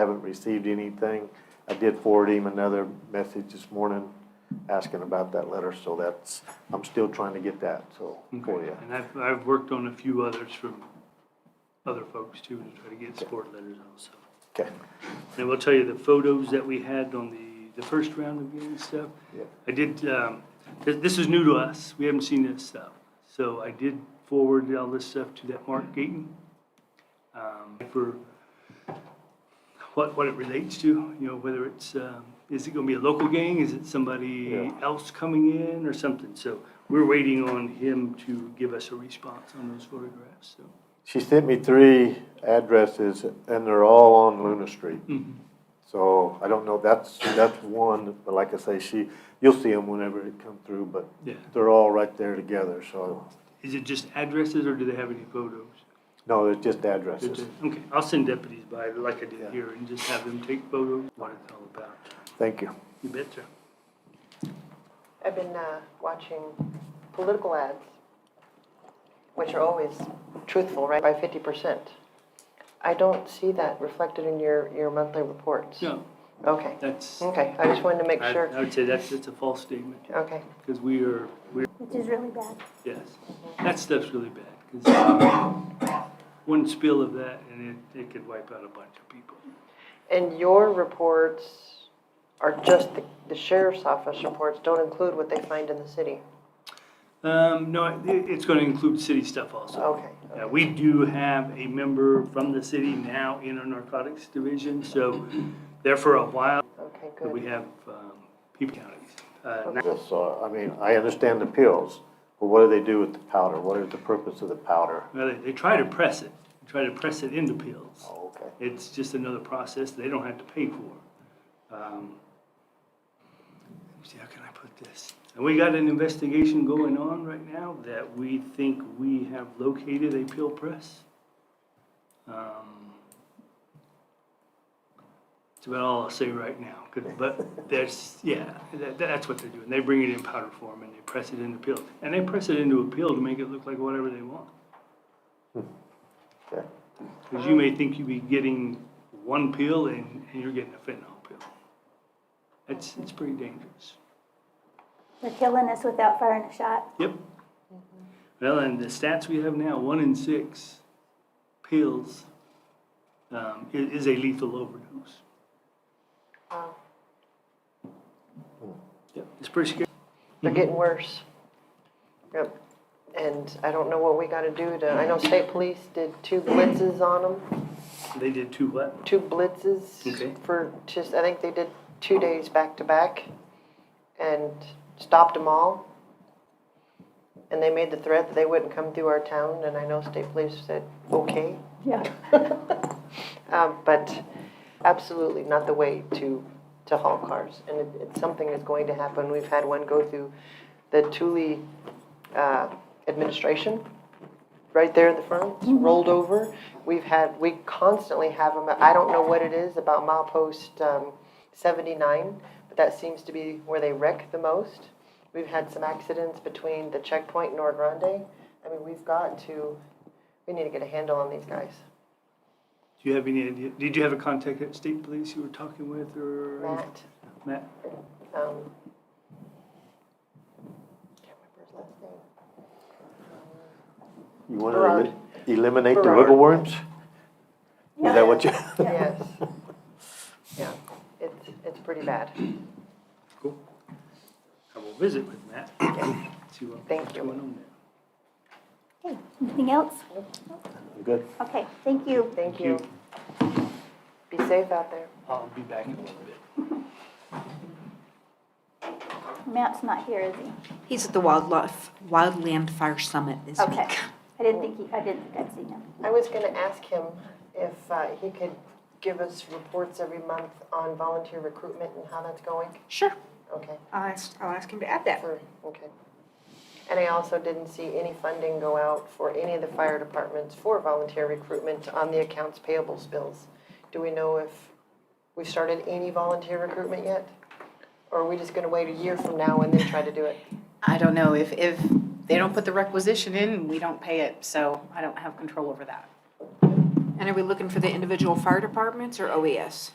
haven't received anything. I did forward him another message this morning asking about that letter, so that's, I'm still trying to get that, so, for you. And I've, I've worked on a few others from other folks too, to try to get support letters also. Okay, And I will tell you, the photos that we had on the, the first round of getting stuff, Yeah. I did, um, this, this is new to us, we haven't seen this stuff. So I did forward all this stuff to that Mark Gayton, um, for what, what it relates to, you know, whether it's, um, is it gonna be a local gang, is it somebody Yeah. else coming in or something? So we're waiting on him to give us a response on those photographs, so. she sent me three addresses, and they're all on Luna Street. So I don't know, that's, that's one, but like I say, she, you'll see them whenever it come through, but Yeah. they're all right there together, so, Is it just addresses or do they have any photos? no, it's just addresses. Okay, I'll send deputies by like I Yeah. did here and just have them take photos, what it's all about. Thank you. You betcha. I've been uh, watching political ads, which are always truthful, right, by 50%. I don't see that reflected in your, your monthly reports. No, Okay, that's, okay, I just wanted to make I sure. I would say that's, that's a false statement, Okay, because we are, we're, which is really bad. yes, that stuff's really bad. 'cause One spill of that and it, it could wipe out a bunch of people. and your reports are just, the the sheriff's office reports don't include what they find in the city? Um, no, it, it's gonna include city stuff also. Okay, Yeah, we do have a member from the city now in our narcotics division, so there for a while, okay, we good. have, um, people counties. Uh, now- Just So, I mean, I understand the pills, but what do they do with the powder? What is the purpose of the powder? Well, they, they try to press it, They try to press it into pills. Oh, okay. It's just another process they don't have to pay for. Um, let me see, how can I put this? And we got an investigation going on right now that we think we have located a pill press. Um, It's about all I'll say right now, 'cause- but there's, yeah, that, that's what they're doing. They bring it in powder form and they press it into pills. And they press it into a pill to make it look like whatever they want. Okay. Because you Um, may think you'd be getting one pill and, and you're getting a fentanyl pill. That's, it's pretty dangerous. They're killing us without firing a shot. Yep. Mm-hmm. Well, and the stats we have now, one in six pills, um, i- is, a lethal overdose. Wow. Yep, it's pretty scary. They're getting worse. Yep. And I don't know what we got to do to, I know state police did two blitzes on them. They did two what? two blitzes Okay. for just, I think they did two days back to back and stopped them all. And they made the threat that they wouldn't come through our town, and I know state police said, okay. Yeah. Um, but absolutely not the way to, to haul cars. And it, it's something that's going to happen. We've had one go through the Thule, uh, administration, right there at the front, rolled over. We've had, we constantly have them, I don't know what it is about milepost, um, seventy-nine, but that seems to be where they wreck the most. We've had some accidents between the checkpoint and Nord Grande. I mean, we've got to, we need to get a handle on these guys. Do you have any idea? Did you have a contact at state police you were talking with or? Matt, Matt? um, can't remember his last name. You want Berard. to eliminate the Berard. wiggle worms? Is that what you? Yes. Yeah, it's, it's pretty bad. Cool. I will visit with Matt. See what- Thank what's you. going on there. Okay, anything else? Good. Okay, thank you. Thank you. you. Be safe out there. I'll be back in a little bit. Matt's not here, is he? He's at the Wildlife, Wildland Fire Summit this Okay. week. I didn't think he, I didn't think I'd seen him. I was going to ask him if uh, he could give us reports every month on volunteer recruitment and how that's going. Sure, Okay, I'll ask, I'll ask him to add that. for- okay. And I also didn't see any funding go out for any of the fire departments for volunteer recruitment on the accounts payables bills. Do we know if we've started any volunteer recruitment yet? Or are we just going to wait a year from now and then try to do it? I don't know, if, if they don't put the requisition in, we don't pay it, so I don't have control over that. And are we looking for the individual fire departments or E OES?